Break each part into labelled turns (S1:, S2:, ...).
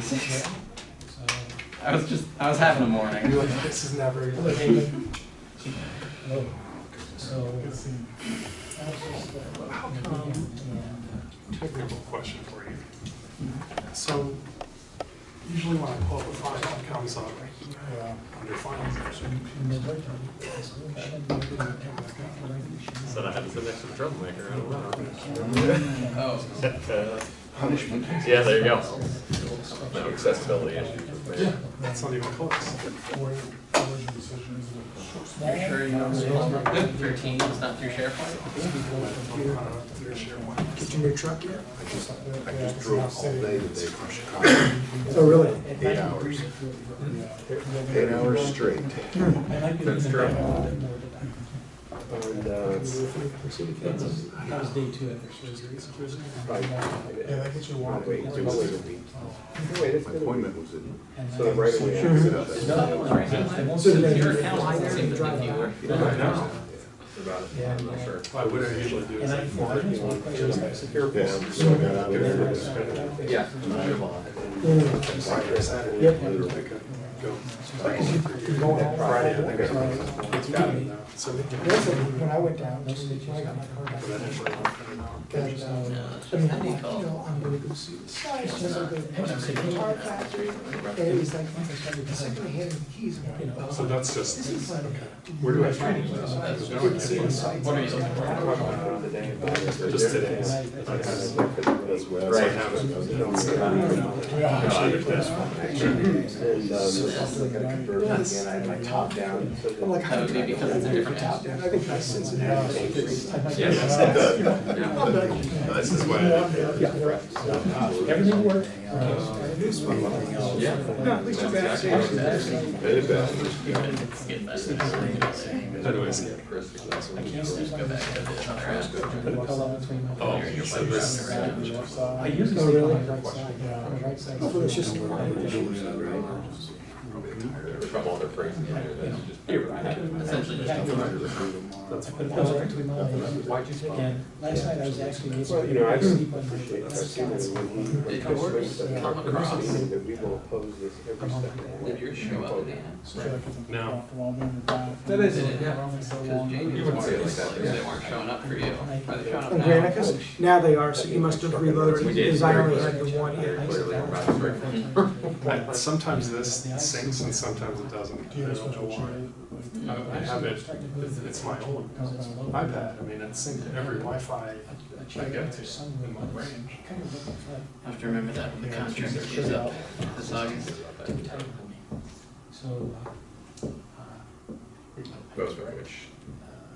S1: six.
S2: So,
S1: I was just, I was having a
S2: we were
S1: morning.
S2: like, this is never even happening. So,
S3: um,
S2: it's,
S3: How come,
S2: um,
S3: technical question for you.
S4: Mm-hmm.
S3: So usually when I pull up a file, it comes up
S2: yeah.
S3: under files.
S5: Said I had to sit next to the troublemaker. I don't know.
S1: Oh,
S4: Punishment.
S5: yeah, there you go. No accessibility issues.
S3: Yeah, that's not even close.
S1: you're sure you don't see your team is not through SharePoint?
S3: I'm kind of through SharePoint.
S2: Get in your truck yet?
S4: Uh, I just drove all day today from Chicago,
S2: Oh, really?
S4: eight hours, eight hours straight.
S5: That's true.
S4: And, uh,
S2: That was day two
S4: I,
S2: Yeah, that gets you
S4: I
S2: walking.
S4: waited till later. My appointment was in,
S2: So
S4: so right away I set up
S1: No,
S4: at
S1: that was right. Since your account doesn't seem to think you were.
S5: About it. I'm not sure. I would usually do
S2: And I, I just want to
S4: Yeah, so I got out of there. and spent
S5: Yeah.
S4: Friday, Saturday,
S2: Yep.
S4: literally.
S3: Go.
S4: Friday, I think I
S3: It's got it now. So they can-
S2: When I went down, when I got my car back,
S3: but that actually won't cut it out.
S2: that, um, I mean, I'm like, you know, I'm gonna go see this. guy, it's just like a- it's a guitar factory, and he's like, oh, "Because I'm gonna hand him the keys, and I'm like, well,
S3: So that's just,
S2: this is like.
S3: where do I find it? Because now I can see it.
S1: What are you looking for?
S3: Just today's.
S4: That's where I was.
S5: Right.
S4: I was- I was- And, um, I got a conversion again, I had my top down. so then-
S1: That would be because it's a different app.
S2: I think that's
S4: Cincinnati came free.
S5: Yes. Yeah.
S4: This is what.
S2: Everything worked.
S5: Yeah.
S2: at least
S5: That's
S2: you're back.
S5: exactly what it is.
S4: Made it back.
S1: Get that.
S5: Anyways, yeah, Chris, that's what we-
S1: Go back to the other app.
S5: Oh, you said this.
S2: I used to sleep on the right side, on the right side. It's just.
S5: From all their phrases. You're right.
S1: Essentially just.
S2: But it was right between my legs.
S5: Why'd you spell?
S2: And last night I was actually. able
S4: Well, you know, I
S2: to sleep on the
S4: appreciate
S2: right
S4: that. I've seen it
S2: side.
S4: when he- when
S1: It
S4: he
S1: works.
S4: swings that-
S1: Come across.
S4: meaning that we will oppose this every step of the way.
S1: Did yours show up in the app?
S5: No.
S2: That is.
S1: Did it? Yeah. Because Jamie
S5: You
S1: was
S5: wouldn't
S1: worried
S5: say it like
S1: because
S5: that, yeah.
S1: they weren't showing up for you. Are they showing up
S6: On
S1: now?
S6: Granicus? Now they are, so you must have reloaded,
S5: We did.
S6: because I only had the one here.
S5: Clearly, we're about to break.
S3: I- Sometimes this syncs and sometimes it doesn't. I don't know why. I I have it, it's- it's my old iPad. I mean, it's synced to every Wi-Fi I get to in my range.
S1: I have to remember that when the contract is up this August.
S2: So. uh,
S5: Both of which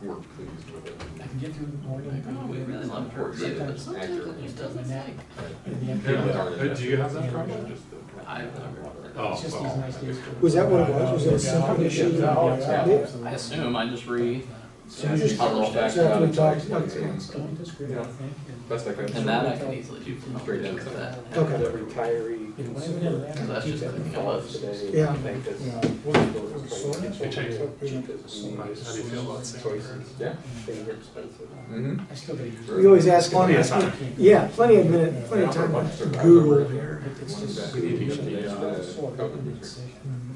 S5: were pleased with it.
S2: I can get through the morning.
S1: Oh, we really love her view, but sometimes it just doesn't like.
S3: Uh, Do you have that problem?
S1: I don't remember.
S3: Oh, well.
S6: Was that what it was? Was it a simple issue?
S3: Oh,
S6: Yeah.
S1: I assume I just re,
S2: So you just.
S1: published that.
S6: So after we talked, that's fine.
S2: Don't disagree, I think.
S5: Best I could.
S1: And that I can easily do from home, just with that.
S6: Okay.
S4: The retiree
S2: And
S4: consumer
S2: whatever that-
S1: Because that's just the thing I
S4: thought
S1: was.
S4: today,
S6: Yeah.
S4: I think that's-
S2: Yeah.
S3: It takes-
S4: cheapest we
S3: How do
S4: need.
S3: you feel about syncing?
S4: Choices.
S5: Yeah.
S4: They were expensive.
S5: Mm-hmm.
S2: I still gotta use.
S6: We always ask.
S5: Plenty of time.
S6: Yeah, plenty of minute, plenty of time to Google.
S2: It's just.
S5: We need to get the, uh,
S2: Sort of
S5: COVID research.
S2: decision.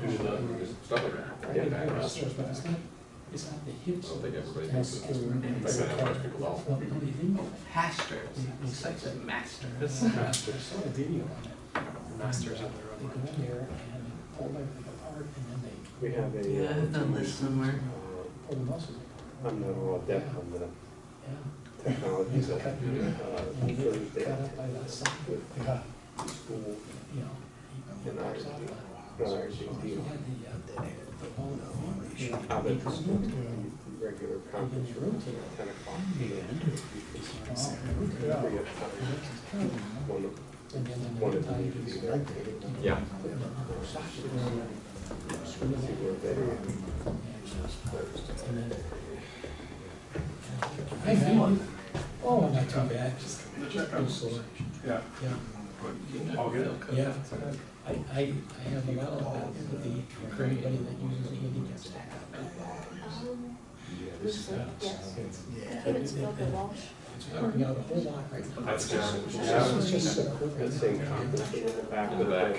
S5: Usually not, we just stuff like that.
S2: Yeah,
S5: Yeah, back
S2: but
S5: around.
S2: it's not, it's not the
S5: I
S2: hips.
S5: don't think everybody thinks
S2: That's
S5: it's.
S2: true.
S5: I say that much people don't.
S2: Well, no, they didn't.
S1: Pastors, it's like the masters.
S2: I saw a video on it.
S3: Masters of their
S2: They
S3: own.
S2: go in there and pull everything apart and then they
S4: We have a.
S1: Yeah,
S4: uh,
S1: I've done this somewhere.
S4: uh,
S2: pull the muscles apart.
S4: I'm not all adept on the
S2: Yeah.
S4: technologies of, uh,
S2: And they get
S4: Thursday
S2: cut up by that side,
S4: at school.
S2: you know.
S4: And I was doing, no, I was doing Hobbit regular conference room, ten o'clock. Every other time, One of, one of them needed to be there.
S5: Yeah.
S4: See where they are.
S2: Hey, man. Oh, not too bad. Just sore.
S3: Yeah.
S2: Yeah.
S3: All good?
S2: Yeah, I, I, I have a lot of empathy for anybody that uses a handicap stack.
S7: It's Bill Walsh.
S2: It's working out a whole lot right now.
S3: That's good.
S2: It's just so cool.
S4: That same conference room in the back.
S5: In the back.